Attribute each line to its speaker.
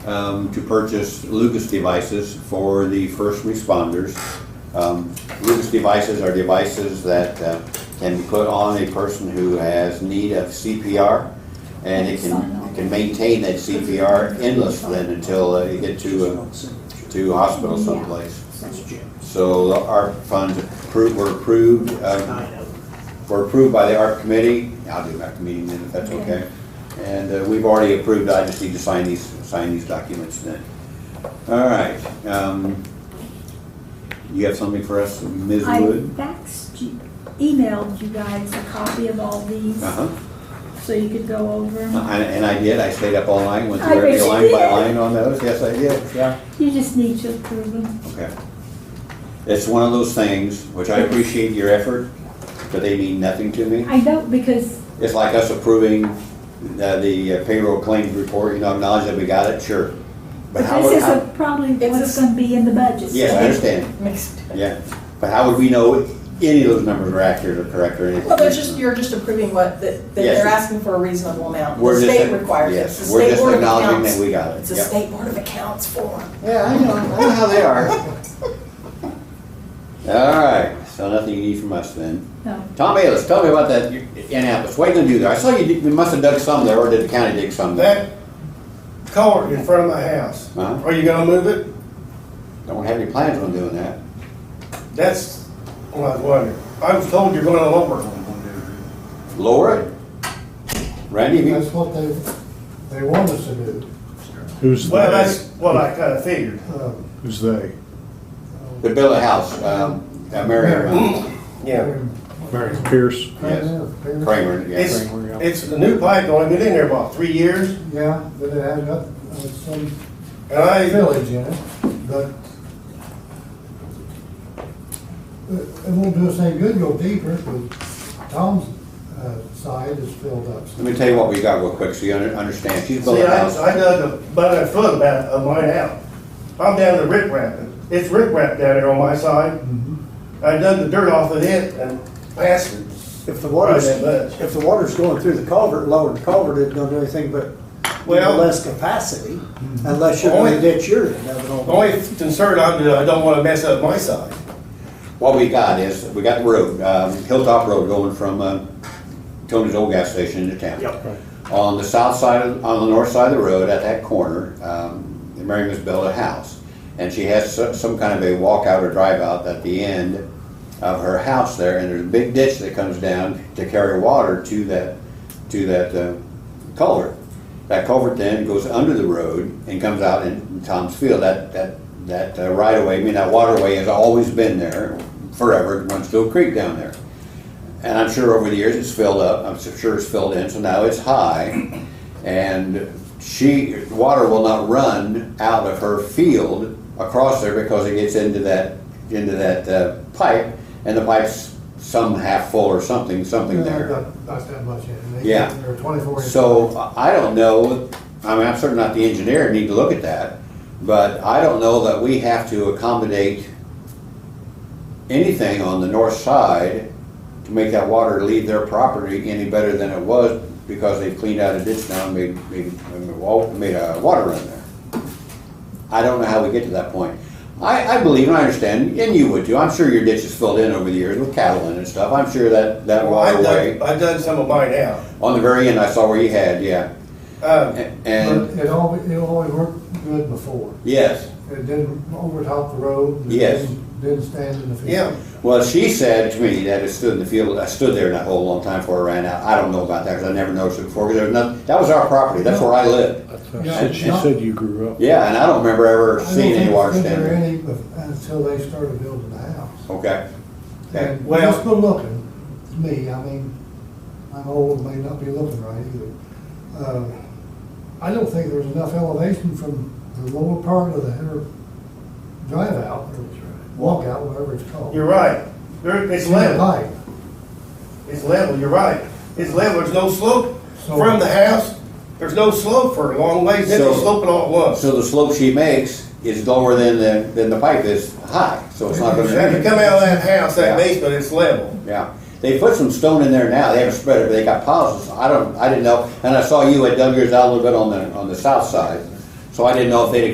Speaker 1: um, to purchase Lucas devices for the first responders. Um, Lucas devices are devices that uh, can be put on a person who has need of CPR, and it can, it can maintain that CPR endlessly until uh, you get to, a- to a hospital someplace. So our funds appro- were approved, um, were approved by the art committee. I'll do back to meeting then if that's okay. And uh, we've already approved, I just need to sign these, sign these documents then. All right. um, You have something for us, Ms.
Speaker 2: I
Speaker 1: Wood?
Speaker 2: faxed you, emailed you guys a copy of all these,
Speaker 1: Uh-huh.
Speaker 2: so you could go over them.
Speaker 1: I- And I did, I stayed up all night, went
Speaker 2: Mm-hmm. I
Speaker 1: through every
Speaker 2: bet you
Speaker 1: line by
Speaker 2: did.
Speaker 1: line on those. Yes, I did, yeah.
Speaker 2: You just need to approve them.
Speaker 1: Okay. It's one of those things, which
Speaker 2: Mm-hmm.
Speaker 1: I appreciate your effort, but they mean nothing to me.
Speaker 2: I don't, because,
Speaker 1: It's like us approving uh, the payroll claims report, you know, acknowledge that we got it, sure. But
Speaker 2: but
Speaker 1: how
Speaker 2: this
Speaker 1: would,
Speaker 2: is
Speaker 1: how-
Speaker 2: a- probably
Speaker 3: It's
Speaker 2: what's
Speaker 3: a-
Speaker 2: gonna be in the budget.
Speaker 1: yes, I understand,
Speaker 3: Mixed.
Speaker 1: yeah. But how would we know if any of those numbers are accurate or correct or anything?
Speaker 3: Well, they're just, you're just approving what, that, that
Speaker 1: Yes.
Speaker 3: they're asking for a reasonable amount.
Speaker 1: We're
Speaker 3: The
Speaker 1: just-
Speaker 3: state requires it.
Speaker 1: yes,
Speaker 3: It's the
Speaker 1: we're
Speaker 3: state
Speaker 1: just
Speaker 3: board of
Speaker 1: acknowledging
Speaker 3: accounts.
Speaker 1: that we got it.
Speaker 3: It's a
Speaker 1: Yep.
Speaker 3: state board of accounts form.
Speaker 1: Yeah, I know, I know how they are. All right, so nothing you need from us then.
Speaker 2: No.
Speaker 1: Tom Ayers, tell me about that Annapolis, what are you gonna do there? I saw you, did- you must have dug some there, or did the county dig some there?
Speaker 4: That culvert in front of my house,
Speaker 1: Uh-huh.
Speaker 4: are you gonna move it?
Speaker 1: Don't have any plans on doing that.
Speaker 4: That's what I was wondering. I was told you're gonna lower it.
Speaker 1: Lower it? Randy, have you-
Speaker 5: That's what they, they want us to do.
Speaker 6: Who's
Speaker 4: Well, that's
Speaker 6: they?
Speaker 4: what I kinda figured.
Speaker 5: Um,
Speaker 6: Who's they?
Speaker 1: The bill of house, um, uh, Mary uh,
Speaker 6: Mary Pierce.
Speaker 5: Kramer, Pierce.
Speaker 1: Kramer,
Speaker 4: It's,
Speaker 1: yeah.
Speaker 4: it's a new pipe, only been in there about three years,
Speaker 5: Yeah, but it had up, uh, some
Speaker 4: and I,
Speaker 5: village in it, but it it won't do us any good go deeper, but Tom's, uh, side is filled up.
Speaker 1: Let me tell you what we got real quick, so you under- understand, she's
Speaker 4: see,
Speaker 1: building a
Speaker 4: I,
Speaker 1: house.
Speaker 4: I dug about a foot about of mine out. I'm down to rip wrapping. It's rip wrap down there on my side. I dug the dirt off of it and passed it.
Speaker 7: If the
Speaker 4: Right,
Speaker 7: water's,
Speaker 4: that much.
Speaker 7: if the water's going through the culvert, lowering the culvert, it don't do anything but
Speaker 4: Well-
Speaker 7: less capacity, unless you're
Speaker 4: Only-
Speaker 7: gonna ditch your end of it all.
Speaker 4: The only concern I'm, I don't wanna mess up my side.
Speaker 1: What we got is, we got the road, um, Hilltop Road going from, uh, Tony's old gas station into town. On the south side, of- on the north side of the road, at that corner, um, Mary has built a house. And she has so- some kind of a walkout or drive-out at the end of her house there, and there's a big ditch that comes down to carry water to that, to that uh, culvert. That culvert then goes under the road and comes out in Tom's Field. That, that, that uh, right-of-way, I mean, that waterway has always been there forever, it runs to a creek down there. And I'm sure over the years it's filled up, I'm so sure it's filled in, so now it's high. And she, water will not run out of her field across there because it gets into that, into that uh, pipe. And the pipe's some half full or something, something there.
Speaker 5: Not, not that much in it. They-
Speaker 1: Yeah.
Speaker 5: They're twenty-four. inch.
Speaker 1: So I I don't know, I mean, I'm certainly not the engineer, need to look at that. But I don't know that we have to accommodate anything on the north side to make that water leave their property any better than it was because they cleaned out a ditch now and made, made, made a wa- made a water run there. I don't know how we get to that point. I, I believe and I understand, and you would too, I'm sure your ditch is filled in over the years with cattle in and stuff. I'm sure that, that
Speaker 4: Well, I
Speaker 1: waterway,
Speaker 4: dug, I dug some of mine out.
Speaker 1: on the very end, I saw where you had, yeah.
Speaker 4: Um,
Speaker 1: A-
Speaker 5: But
Speaker 1: And,
Speaker 5: it always, it always worked good before.
Speaker 1: yes,
Speaker 5: It didn't overtop the road. it
Speaker 1: Yes.
Speaker 5: didn't- Didn't stand in the field.
Speaker 4: Yeah,
Speaker 1: well, she said to me that it stood in the field, I stood there in that hole a long time before it ran out. I don't know about that, because I never noticed it before, because there was nothing, that was our property, that's where I lived.
Speaker 6: She said- She said you grew up.
Speaker 1: Yeah, and I don't remember ever seeing any water
Speaker 5: I don't
Speaker 1: standing.
Speaker 5: think there any until they started building the house.
Speaker 1: Okay. Okay.
Speaker 5: And
Speaker 4: Well-
Speaker 5: just good looking, to me, I mean, I'm old, may not be looking right either. Uh, I don't think there's enough elevation from the lower part of the inner drive out, or walk out, whatever it's called.
Speaker 4: you're right. There, it's
Speaker 5: In the
Speaker 4: level,
Speaker 5: pipe.
Speaker 4: it's level, you're right. It's level, there's no slope
Speaker 5: So-
Speaker 4: from the house, there's no slope for a long ways, then they
Speaker 1: So-
Speaker 4: slope it all at once.
Speaker 1: So the slope she makes is lower than the, than the pipe is high, so it's not
Speaker 4: If you
Speaker 1: gonna.
Speaker 4: come out of that house,
Speaker 1: Yeah.
Speaker 4: that basement, it's level.
Speaker 1: Yeah, they put some stone in there now, they haven't spread it, but they got piles, of- I don't, I didn't know, and I saw you had dug yours out a little bit on the, on the south side. So So I didn't know if they'd